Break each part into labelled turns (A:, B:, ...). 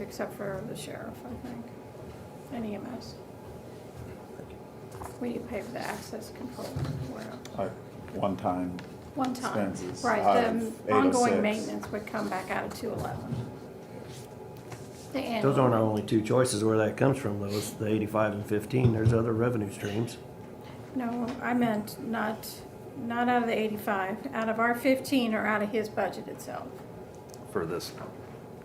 A: except for the sheriff, I think, and EMS. We need to pay for the access control, where,
B: like one-time
A: one time.
B: Expenses out
A: Right,
B: of
C: oh
A: the ongoing
B: 806.
A: maintenance would come back out of two eleven. The
D: Those
A: annual,
D: aren't our only two choices where that comes from, though, is the eighty-five and fifteen, there's other revenue streams.
A: no, I meant not, not out of the eighty-five, out of our fifteen or out of his budget itself.
E: for this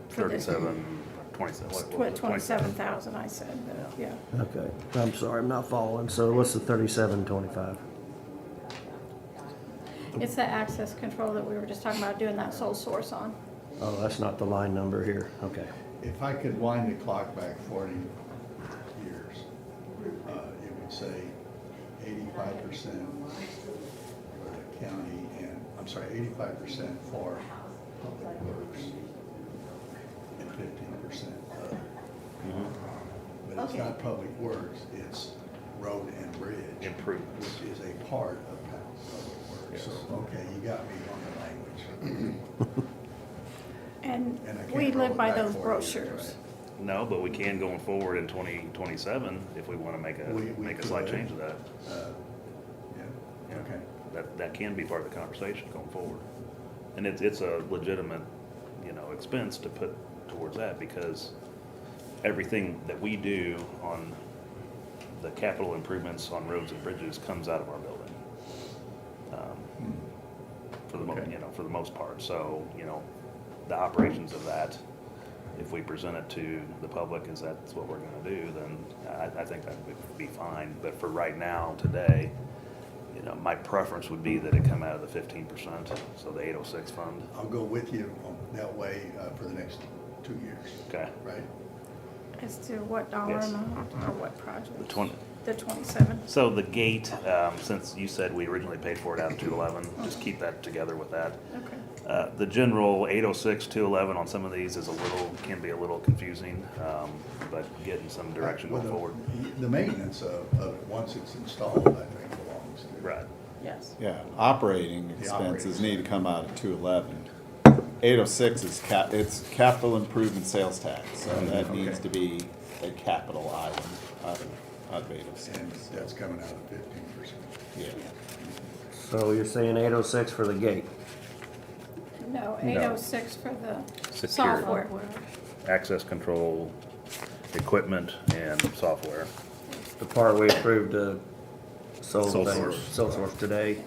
A: For this.
E: thirty-seven, twenty-seven. what- what was it,
A: Twenty-seven thousand, I said, but, yeah.
D: Okay, I'm sorry, I'm not following, so what's the thirty-seven twenty-five?
A: It's the access control that we were just talking about doing that sole source on.
D: Oh, that's not the line number here, okay.
C: If I could wind the clock back forty years, uh, it would say eighty-five percent for the county and, I'm sorry, eighty-five percent for public works and fifteen percent other. Mm-hmm. But it's
F: Okay.
C: not public works, it's road and bridge.
E: Improvements.
C: Which is a part of public works. So, okay, you got me on the language.
A: And
C: And I can't
A: we
C: roll
A: live
C: it
A: by
C: back
A: those
C: forty years,
A: brochures.
C: right?
E: No, but we can going forward in twenty twenty-seven if we wanna make a,
C: We- we
E: make a slight
C: could.
E: change to that.
C: Uh,
E: Yeah.
C: Yeah, okay.
E: That, that can be part of the conversation going forward. And it's, it's a legitimate, you know, expense to put towards that because everything that we do on the capital improvements on roads and bridges comes out of our building. Um, For the, mo-
C: Okay.
E: you know, for the most part. So, you know, the operations of that, if we present it to the public as that's what we're gonna do, then I, I think that would be fine. But for right now, today, you know, my preference would be that it come out of the fifteen percent, so the eight oh six fund.
C: I'll go with you on that way uh, for the next two years,
E: Okay,
C: right?
A: As to what dollar
E: Yes.
A: amount or what project?
E: the twenty,
A: The twenty-seven.
E: so the gate, um, since you said we originally paid for it out of two eleven, just keep that together with that.
A: Okay.
E: Uh, the general eight oh six, two eleven on some of these is a little, can be a little confusing, um, but getting some direction
C: Well,
E: going
C: the-
E: forward.
C: The maintenance of, of it, once it's installed, I think belongs to.
E: Right,
A: Yes.
B: Yeah, operating
C: The
B: expenses
C: operating.
B: need to come out of two eleven. Eight oh six is cap, it's capital improvement sales tax, so that
C: Okay.
B: needs to be a capital item out of, out of eight oh
C: And
B: six.
C: that's coming out of fifteen percent.
B: Yeah,
D: So you're saying eight oh six for the gate?
A: No, eight oh six for the
E: Security.
A: software.
E: access control, equipment and software.
D: The part we approved, uh, sole
E: Sole
D: thing-
E: source.
D: sole source today.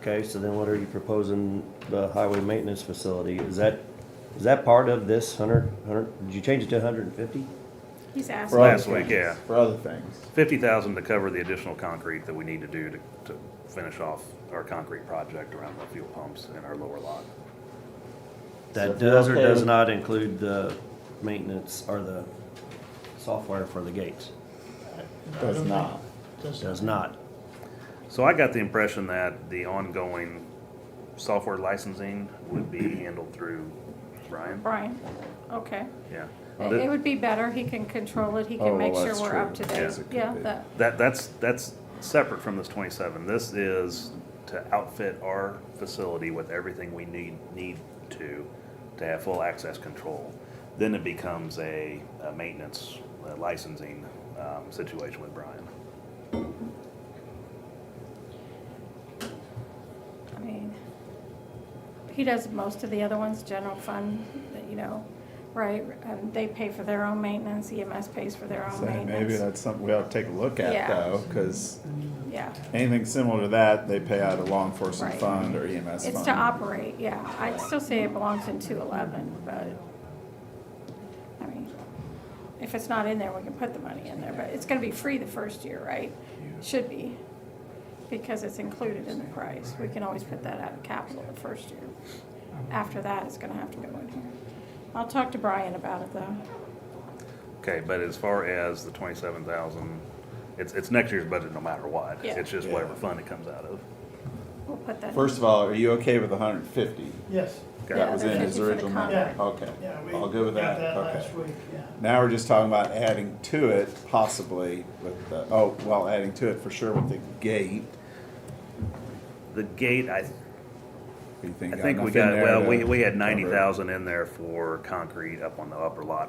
D: Okay, so then what are you proposing, the highway maintenance facility, is that, is that part of this hundred, hundred, did you change it to hundred and fifty?
A: He's asking.
B: Right.
E: Last week, yeah.
B: for other things.
E: fifty thousand to cover the additional concrete that we need to do to, to finish off our concrete project around the fuel pumps in our lower lot.
B: So
D: That
B: if you're
D: does or
B: okay
D: does
B: with-
D: not include the maintenance or the software for the gates?
B: Does not.
D: Does not.
E: So I got the impression that the ongoing software licensing would be handled through Brian,
A: Brian, okay.
E: yeah.
A: It
E: Th-
A: would be better, he can control it, he
B: Oh,
A: can make
B: well,
A: sure
B: that's
A: we're
B: true.
A: up to date.
B: Yes, it could
A: Yeah,
B: be.
A: that,
E: That, that's, that's separate from this twenty-seven, this is to outfit our facility with everything we need, need to, to have full access control. Then it becomes a, a maintenance uh, licensing, um, situation with Brian.
A: I mean, he does most of the other ones, general fund, you know, right? And they pay for their own maintenance, EMS pays for their own
B: So maybe
A: maintenance.
B: that's something we ought to take a look
A: Yeah.
B: at though, cause
A: Yeah,
B: anything similar to that, they pay out of law enforcement
A: Right.
B: fund or EMS fund.
A: it's to operate, yeah. I'd still say it belongs in two eleven, but, I mean, if it's not in there, we can put the money in there, but it's gonna be free the first year, right? Should be, because it's included in the price. We can always put that out of capital the first year. After that, it's gonna have to go in here. I'll talk to Brian about it though.
E: Okay, but as far as the twenty-seven thousand, it's, it's next year's budget no matter what.
A: Yeah.
E: It's just whatever
B: Yeah.
E: fund it comes out of.
A: We'll put that. in.
B: First of all, are you okay with hundred and fifty?
G: Yes,
E: Okay.
B: That was
A: Yeah,
B: in his
A: 50 for the
B: original number,
A: contract.
B: okay.
G: yeah, we
B: All good
G: got
B: with that,
G: that
B: okay.
G: last week, yeah.
B: Now we're just talking about adding to it possibly with the, oh, well, adding to it for sure with the gate.
E: The gate, I,
B: You
E: I
B: think
E: think we
B: enough in
E: got,
B: there
E: well,
B: to
E: we, we had
B: cover it?
E: ninety thousand in there for concrete up on the upper lot